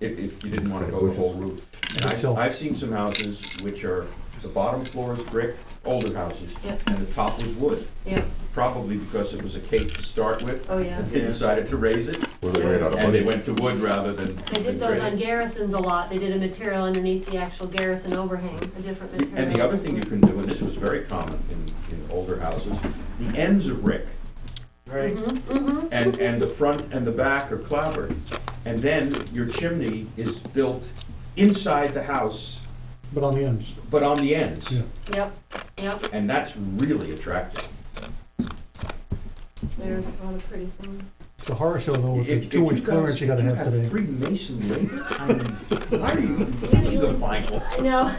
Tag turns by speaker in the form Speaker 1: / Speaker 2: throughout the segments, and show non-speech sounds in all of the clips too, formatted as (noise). Speaker 1: if, if you didn't wanna go the whole route. And I've, I've seen some houses which are, the bottom floor is brick, older houses,
Speaker 2: Yep.
Speaker 1: and the top was wood,
Speaker 2: yeah,
Speaker 1: probably because it was a cake to start with.
Speaker 2: oh, yeah.
Speaker 1: They decided to raise it,
Speaker 3: Really made out of
Speaker 1: and they
Speaker 3: money.
Speaker 1: went to wood rather than.
Speaker 2: They did
Speaker 1: than
Speaker 2: those on
Speaker 1: granite.
Speaker 2: garrisons a lot, they did a material underneath the actual garrison overhang, a different material.
Speaker 1: And the other thing you can do, and this was very common in, in older houses, the ends are brick,
Speaker 4: Right.
Speaker 2: Mm-hmm,
Speaker 1: and, and the front and the back are clapboard. And then your chimney is built inside the house,
Speaker 5: but on the ends.
Speaker 1: but on the ends.
Speaker 5: Yeah.
Speaker 2: yep, yep,
Speaker 1: And that's really attractive.
Speaker 2: there's a lot of pretty things.
Speaker 5: It's a horror show though, with
Speaker 1: If-
Speaker 5: the
Speaker 1: if
Speaker 5: two inch
Speaker 1: guys-
Speaker 5: clearance you gotta
Speaker 1: if
Speaker 5: have today.
Speaker 1: Freemason labor, I mean, why are you, who's gonna find one?
Speaker 2: I know,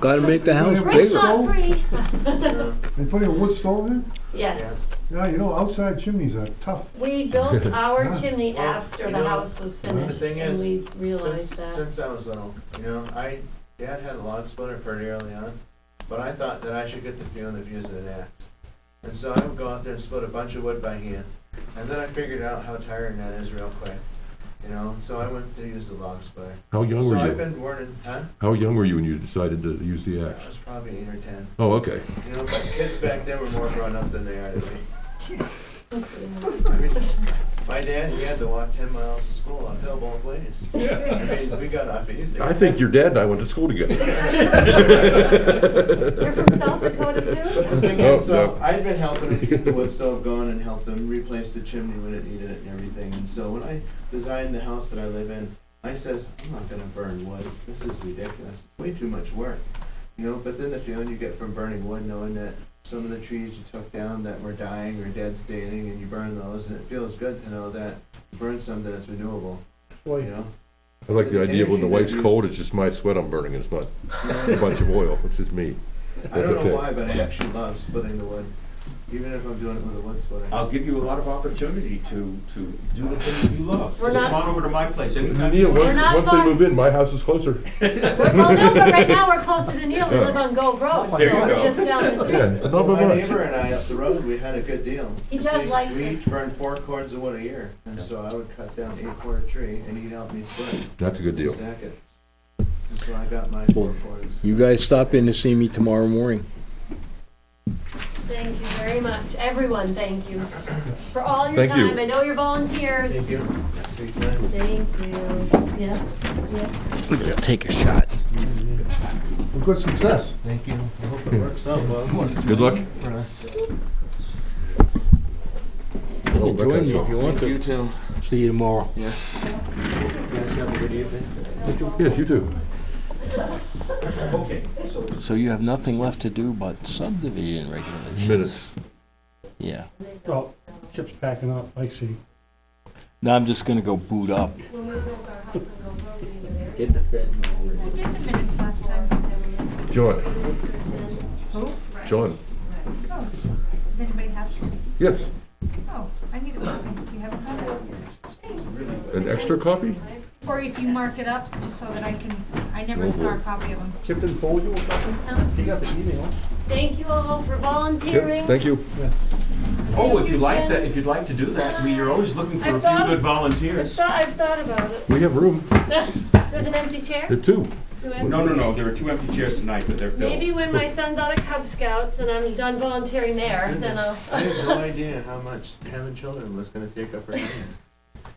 Speaker 6: Gotta make the house
Speaker 2: rent's
Speaker 6: bigger.
Speaker 2: not free,
Speaker 7: They put in a wood stove in?
Speaker 2: (laughs) yes.
Speaker 7: Yeah, you know, outside chimneys are tough.
Speaker 2: We built our
Speaker 7: Yeah.
Speaker 2: chimney
Speaker 4: Well,
Speaker 2: after
Speaker 4: you
Speaker 2: the
Speaker 4: know,
Speaker 2: house was
Speaker 4: The
Speaker 2: finished,
Speaker 4: thing
Speaker 2: and
Speaker 4: is,
Speaker 2: we
Speaker 4: since,
Speaker 2: realized that.
Speaker 4: since I was little, you know, I dad had a log splitter pretty early on, but I thought that I should get the feeling of using an axe, and so I would go out there and split a bunch of wood by hand, and then I figured out how tiring that is real quick, you know. So I went to use the log splitter.
Speaker 3: How young
Speaker 4: So
Speaker 3: were
Speaker 4: I've
Speaker 3: you?
Speaker 4: been warning, huh?
Speaker 3: How young were you when you decided to use the
Speaker 4: I
Speaker 3: axe?
Speaker 4: was probably eight or ten.
Speaker 3: Oh, okay.
Speaker 4: You know, but kids back then were more grown up than they are today.
Speaker 2: Yeah.
Speaker 4: I mean, my dad, he had to walk ten miles to school uphill both
Speaker 3: (laughs)
Speaker 4: ways. I mean, we got off easy.
Speaker 3: I think your dad and I went to school together.
Speaker 2: You're from South Dakota
Speaker 4: The
Speaker 2: too?
Speaker 4: (laughs) thing is,
Speaker 3: Oh,
Speaker 4: so
Speaker 3: no.
Speaker 4: I'd been helping them
Speaker 3: (laughs)
Speaker 4: keep the wood stove going and help them replace the chimney when it needed it and everything. And so when I designed the house that I live in, I says, I'm not gonna burn wood. This is ridiculous. Way too much work. You know, but then the feeling you get from burning wood, knowing that some of the trees you took down that were dying or dead standing and you burn those and it feels good to know that you burn something that's renewable, you
Speaker 5: Boy,
Speaker 4: know?
Speaker 3: I like the idea when the wife's cold, it's just my sweat I'm burning, it's not a bunch of oil, it's just me.
Speaker 4: I
Speaker 3: That's
Speaker 4: don't
Speaker 3: okay.
Speaker 4: know why, but I actually love splitting the wood, even if I'm doing it with a wood splitter.
Speaker 1: I'll give you a lot of opportunity to, to do the things you love.
Speaker 2: We're
Speaker 1: Just
Speaker 2: not-
Speaker 1: Come on over to my place anytime. you
Speaker 3: Neil,
Speaker 1: want.
Speaker 2: We're
Speaker 3: once,
Speaker 2: not
Speaker 3: once they
Speaker 2: far.
Speaker 3: move in, my house is closer.
Speaker 2: Well, no, but right now we're closer to Neil, we live on Gove Road, so
Speaker 1: There you go.
Speaker 2: just down the (laughs)
Speaker 3: Yeah,
Speaker 2: street.
Speaker 3: not
Speaker 4: Well,
Speaker 3: by
Speaker 4: my
Speaker 3: much.
Speaker 4: neighbor and I up the road, we had a good deal.
Speaker 2: He
Speaker 4: You
Speaker 2: does
Speaker 4: see,
Speaker 2: like
Speaker 4: We
Speaker 2: it.
Speaker 4: each burned four cords of wood a year, and so I would cut down eight cord a tree, and he'd help me split it,
Speaker 3: That's a good
Speaker 4: and
Speaker 3: deal.
Speaker 4: stack it. And so I got my four cords.
Speaker 6: You guys stop in to see me tomorrow morning.
Speaker 2: Thank you very much, everyone, thank you for all your
Speaker 3: Thank you.
Speaker 2: time, I know you're volunteers.
Speaker 4: Thank you. Big time.
Speaker 2: Thank you, yes, yes.
Speaker 6: Take a shot.
Speaker 7: Well, Good success.
Speaker 4: Thank you. I hope it works out well
Speaker 3: Good luck.
Speaker 4: for us.
Speaker 3: Oh,
Speaker 6: Join
Speaker 3: okay,
Speaker 6: me
Speaker 3: so-
Speaker 6: if you want to.
Speaker 4: too.
Speaker 6: See you tomorrow.
Speaker 4: Yes. You guys have a good evening.
Speaker 3: Yes, you do.
Speaker 1: Okay, so
Speaker 6: So you have nothing left to do but subdivision regulations?
Speaker 3: Minutes.
Speaker 6: Yeah.
Speaker 5: well, Chip's packing up, I see.
Speaker 6: Now I'm just gonna go boot up.
Speaker 1: Get the fentanyl.
Speaker 8: did the minutes last time.
Speaker 3: John,
Speaker 8: Who?
Speaker 3: John,
Speaker 8: Oh, does anybody have?
Speaker 3: yes,
Speaker 8: Oh, I need a copy. Do you have a copy?
Speaker 3: an extra copy?
Speaker 8: Or if you mark it up, just so that I can, I never
Speaker 3: Oh,
Speaker 8: saw a
Speaker 3: boy.
Speaker 8: copy of them.
Speaker 5: Chip didn't forward you or something? You got the email.
Speaker 2: Thank you all for
Speaker 3: Yep,
Speaker 2: volunteering.
Speaker 3: thank you.
Speaker 1: Oh, if you'd like that, if you'd like to do that, we are always looking for a
Speaker 2: I've
Speaker 1: few
Speaker 2: thought-
Speaker 1: good
Speaker 2: I've
Speaker 1: volunteers.
Speaker 2: thought, I've thought about it,
Speaker 3: We have room,
Speaker 2: there's an empty chair,
Speaker 3: there are two.
Speaker 2: Two empty-
Speaker 1: No, no, no, there are two empty chairs tonight, but they're filled.
Speaker 2: Maybe when my son's out of Cub Scouts and I'm done volunteering there, then I'll.
Speaker 4: I had no idea how much having children was gonna take up her
Speaker 2: (laughs)
Speaker 4: time.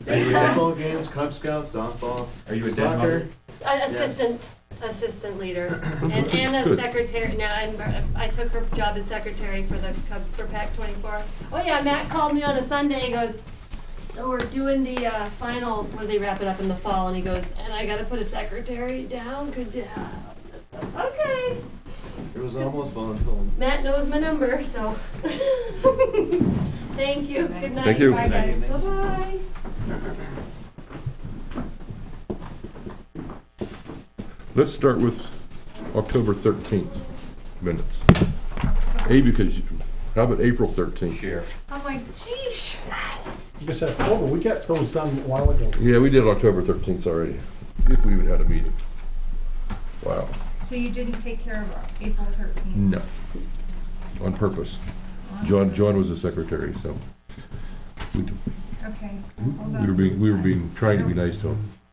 Speaker 1: Are you a dead-
Speaker 4: Baseball games, Cub Scouts, softball,
Speaker 1: Are you a dead
Speaker 4: soccer.
Speaker 1: mother?
Speaker 2: A- Assistant, assistant leader, and
Speaker 3: Good,
Speaker 2: Anna's
Speaker 3: good.
Speaker 2: secretary, now, I'm, I took her job as secretary for the Cubs for PAC twenty-four. Oh yeah, Matt called me on a Sunday, he goes, so we're doing the, uh, final, where they wrap it up in the fall, and he goes, and I gotta put a secretary down, could you? help?" Okay,
Speaker 4: It was almost voluntold.
Speaker 2: Matt knows my number, so. (laughs) Thank you, good night.
Speaker 3: you.
Speaker 2: Bye guys,
Speaker 4: Good night.
Speaker 2: bye-bye.
Speaker 3: Let's start with October 13th minutes. A, because, you- how about April 13th?
Speaker 1: Chair.
Speaker 8: I'm like, geez.
Speaker 5: Like I said, October, we got those done a while ago.
Speaker 3: Yeah, we did October 13th already, if we even had a meeting. Wow,
Speaker 8: So you didn't take care of April thirteenth?
Speaker 3: no, on purpose. John, John was the secretary, so we
Speaker 8: Okay. hold
Speaker 3: we were
Speaker 8: on.
Speaker 3: being, we were being, trying to be nice to him.